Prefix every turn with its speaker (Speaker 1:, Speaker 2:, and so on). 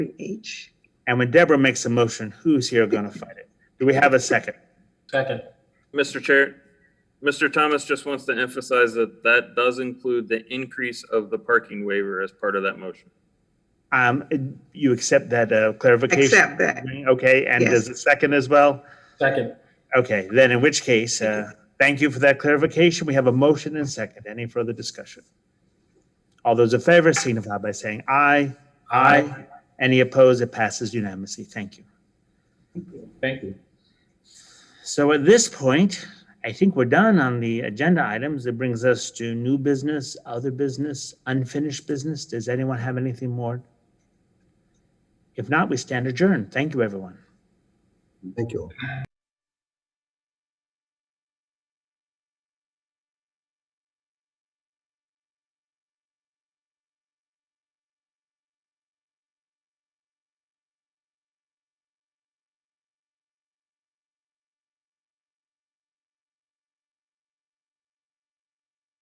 Speaker 1: H.
Speaker 2: And when Deborah makes a motion, who's here going to fight it? Do we have a second?
Speaker 3: Second.
Speaker 4: Mr. Chair, Mr. Thomas just wants to emphasize that that does include the increase of the parking waiver as part of that motion.
Speaker 2: Um, you accept that uh, clarification?
Speaker 1: Accept that.
Speaker 2: Okay, and
Speaker 1: Yes.
Speaker 2: does the second as well?
Speaker 3: Second.
Speaker 2: Okay, then in which case, uh, thank you for that clarification. We have a motion and second. Any further discussion? All those in favor signify by saying aye. Aye. Any opposed? It passes unanimously. Thank you.
Speaker 3: Thank you.
Speaker 2: So at this point, I think we're done on the agenda items. It brings us to new business, other business, unfinished business. Does anyone have anything more? If not, we stand adjourned. Thank you, everyone.
Speaker 5: Thank you.